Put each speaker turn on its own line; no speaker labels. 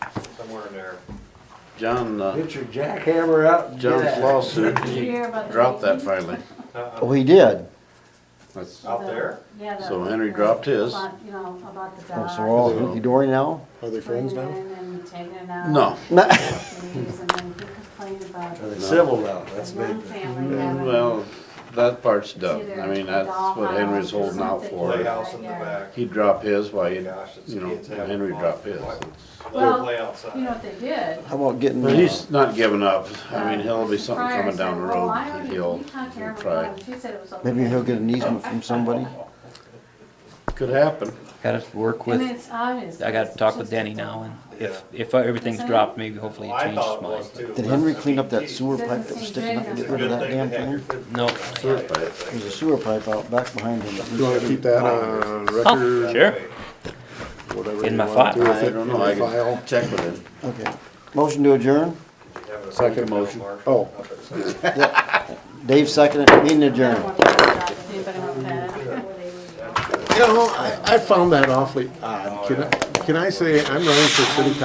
somewhere in there.
John, uh,
Get your jackhammer out and get at
John's
it.
lawsuit,
Did you hear about the
dropped that
meeting?
finally.
Uh-uh.
We did.
That's,
uh, Out there?
Yeah. the-
So Henry dropped his.
About, You know, about the
Oh,
dog.
So we're all hunky dory now?
Are they friends
bringing
now?
it in And taking it out.
no.
No.
Please, And then he complained about
Oh,
Are they
No.
civil now? That's
his
big.
one
Mm-hmm.
family having.
Well, that part's done. I mean, that's what Henry's holding out for.
Playhouse in the back.
He'd drop his while, he'd-
Gosh, it's
you know,
kids having
Henry
fun.
drop his.
Let them
Well,
play
You know
outside.
what they did?
How about getting,
But
uh,
he's not giving up. I mean, he'll be something
Fryer
coming down
said,
the
"Well,
road
I
that
already-
he'll
we contacted her, we
try.
got it." She said it was okay.
maybe he'll get an easement from somebody?
Could happen.
Gotta work
And
with,
it's obvious.
I gotta
It's
talk with
just-
Danny now and
Yeah.
if, if everything's
Isn't it?
dropped, maybe hopefully
Well,
it
I
changes
thought it
mine.
was too.
Did Henry clean up that
It's
sewer
Doesn't
pipe that was
seem
sticking up and
good
get
a
rid of
good
that
thing to
damn
have your
thing?
good-
No,
Sewer pipe.
There's a sewer pipe out back behind him.
You wanna keep that on record,
Oh, sure.
whatever
In
you
my
want to do
file.
with
I
it,
don't
in
know. I
your
can
file?
check with him.
Okay. Motion to adjourn?
Having a
Second
good
motion.
mark.
Oh.
Dave seconded, meeting
I don't
adjourned.
want to talk to anybody about that. I don't know where they would go.
You know, I, I found that awfully odd. Can I, can I say, I'm running for city